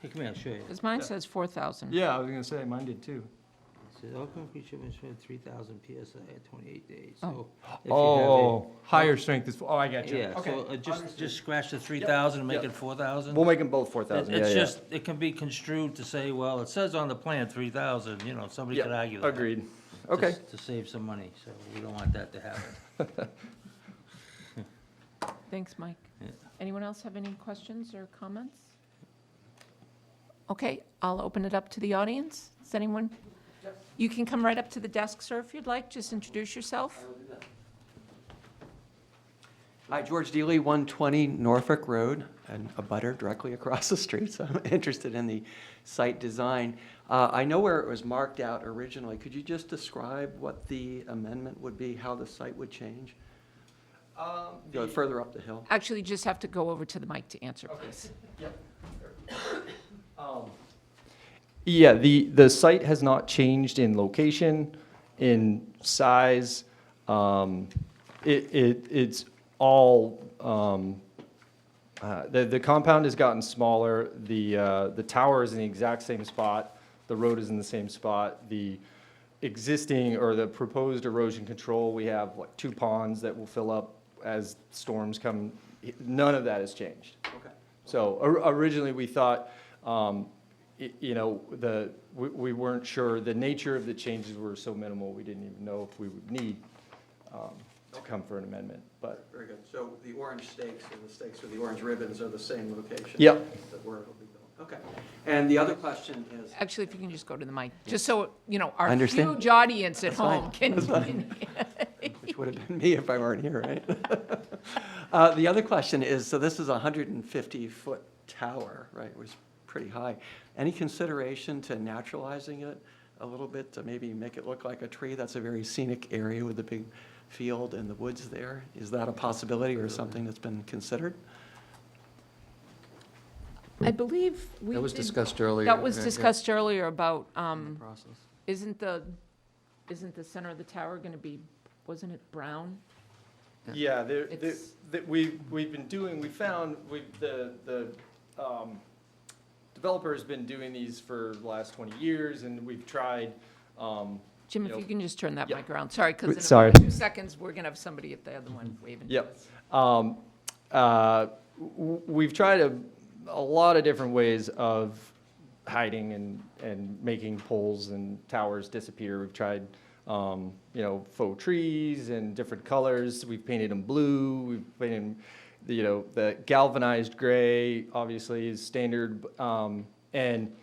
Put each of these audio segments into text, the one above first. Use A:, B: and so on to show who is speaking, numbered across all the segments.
A: Hey, come here, I'll show you.
B: Because mine says 4,000.
C: Yeah, I was gonna say, mine did too.
A: It says all concrete shipments within three thousand PSI at twenty-eight days, so.
B: Oh.
A: if you have a-
C: Oh, higher strength is, oh, I got you.
A: Yeah, so
C: Okay.
A: uh, just, just scratch the three thousand and make
C: yep.
A: it four thousand.
D: We'll make them both four thousand, yeah,
A: It's
D: yeah.
A: just, it can be construed to say, well, it says on the plan three thousand, you know, somebody could
C: Yeah,
A: argue that.
C: agreed.
A: to s-
C: Okay,
A: To save some money, so we don't want that to happen.
B: Thanks, Mike.
A: Yeah.
B: Anyone else have any questions or comments? Okay, I'll open it up to the audience. Does anyone? You can come right up to the desk, sir, if you'd like. Just introduce yourself.
E: Hi, George Deely, 120 Norfolk Road, and a butter directly across the street, so I'm interested in the site design. Uh, I know where it was marked out originally. Could you just describe what the amendment would be, how the site would change? Go further up Um, the hill?
B: Actually, you just have to go over to the mic to answer, please.
C: yeah, the, the site has not changed in location, in size. Um, It, it, it's all, um, uh, the, the compound has gotten smaller, the, uh, the tower is in the exact same spot, the road is in the same spot, the existing or the proposed erosion control, we have like two ponds that will fill up as storms come, none of that has changed.
E: Okay.
C: So or- originally, we thought, um, y- you know, the, we- we weren't sure, the nature of the changes were so minimal, we didn't even know if we would need um, to come for an amendment, but,
E: Very good. So the orange stakes and the stakes with the orange ribbons are the same location?
C: Yep.
E: That where it'll be built. Okay. And the other question is,
B: Actually, if you can just go to the mic, just so, you know, our
E: Understand.
B: huge audience at
E: fine.
B: home can. can-
E: which would have been me if I weren't here, right? Uh, The other question is, so this is a 150-foot tower, right, It was pretty high. Any consideration to naturalizing it a little bit to maybe make it look like a tree? That's a very scenic area with the big field and the woods there. Is that a possibility or something that's been considered?
B: I believe we
F: That was
B: did-
F: discussed earlier.
B: Hmm. That was
F: Yeah, yeah.
B: discussed earlier about, um,
E: Process.
B: Isn't the, isn't the center of the tower going to be, wasn't it brown?
C: yeah, there, there-
B: It's-
C: that we, we've been doing, we found, we, the, the um, developer's been doing these for the last 20 years, and we've tried, um,
B: Jim, if
C: Yep.
B: you can just turn that
C: Yep.
B: mic around, sorry, because
C: Wait,
B: in
C: sorry.
B: about two seconds, we're going to have somebody at the other one waving to
C: Mm-hmm. Yep.
B: us.
C: Um, uh, w- We've tried a, a lot of different ways of hiding and, and making poles and towers disappear. We've tried, um, you know, faux trees and different colors. We've painted them blue, we've painted, 'em, you know, the galvanized gray, obviously, is standard. b- um, And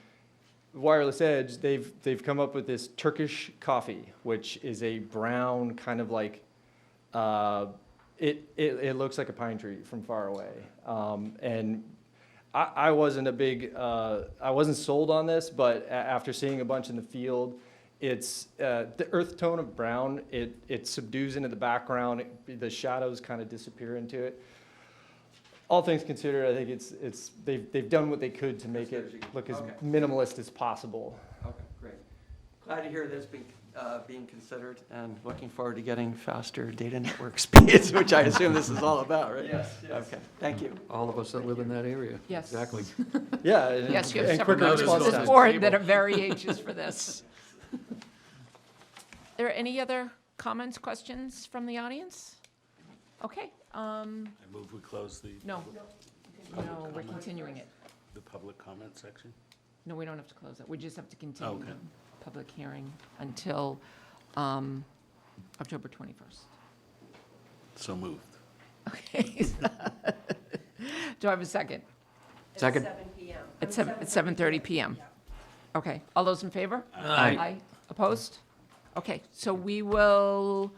C: Wireless Edge, they've, they've come up with this Turkish coffee, which is a brown kind of like, uh, it, it, it looks like a pine tree from far away. Um, and I, I wasn't a big, uh, I wasn't sold on this, but a- after seeing a bunch in the field, it's uh, the earth tone of brown. It, it subdues into the background. It, the shadows kind of disappear into it. All things considered, I think it's, it's, they've, they've done what they could to make
E: As good as you
C: it
E: can.
C: look as
E: Okay.
C: minimalist as possible.
E: Okay, great. Glad to hear that's being, uh, being considered and looking forward to getting faster data network speeds, which I assume this is all about, right? Yes, Okay, thank you.
F: All of us that live in that area.
B: Yes.
F: Exactly.
C: Yeah. and-
B: Yes, you have
C: and
B: several
C: quicker
B: members
C: response
B: of this
C: times.
B: board that are very anxious for this. Are there any other comments, questions from the audience? Okay, um,
G: I move we close the,
B: no. No, we're continuing it.
G: the public comment section?
B: No, we don't have to close it. We just have to continue
G: Okay.
B: the public hearing until um, October 21st.
G: So moved.
B: Okay. Do I have a second?
F: Second.
B: At seven, at 7:30 PM? Okay, all those in favor?
F: Aye.
B: Opposed? Okay, so we will,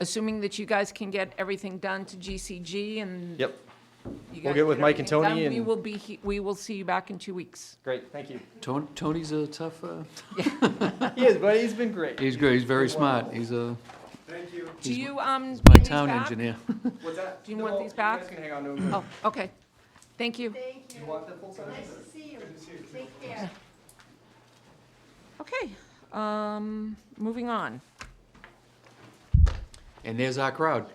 B: assuming that you guys can get everything done to GCG and
C: Yep,
B: you
C: We'll
B: guys
C: get with Mike and
B: everything
C: Tony
B: done, We
C: and-
B: will be, he- we will see you back in two weeks.
C: great, thank you.
F: Ton- Tony's a tough, uh,
C: He is, buddy, he's been great.
F: he's great, he's very smart, he's a,
C: Thank you.
B: Do you, um,
F: he's my
B: need these
F: town
B: back?
F: engineer.
C: What's that?
B: Do you want
C: No,
B: these back?
C: You guys can hang on to 'em.
B: Oh, okay. Thank you.
H: Thank
C: You
H: you.
C: want the full size?
H: Nice to see you. Take care.
B: Okay, um, moving on.
F: And there's our crowd.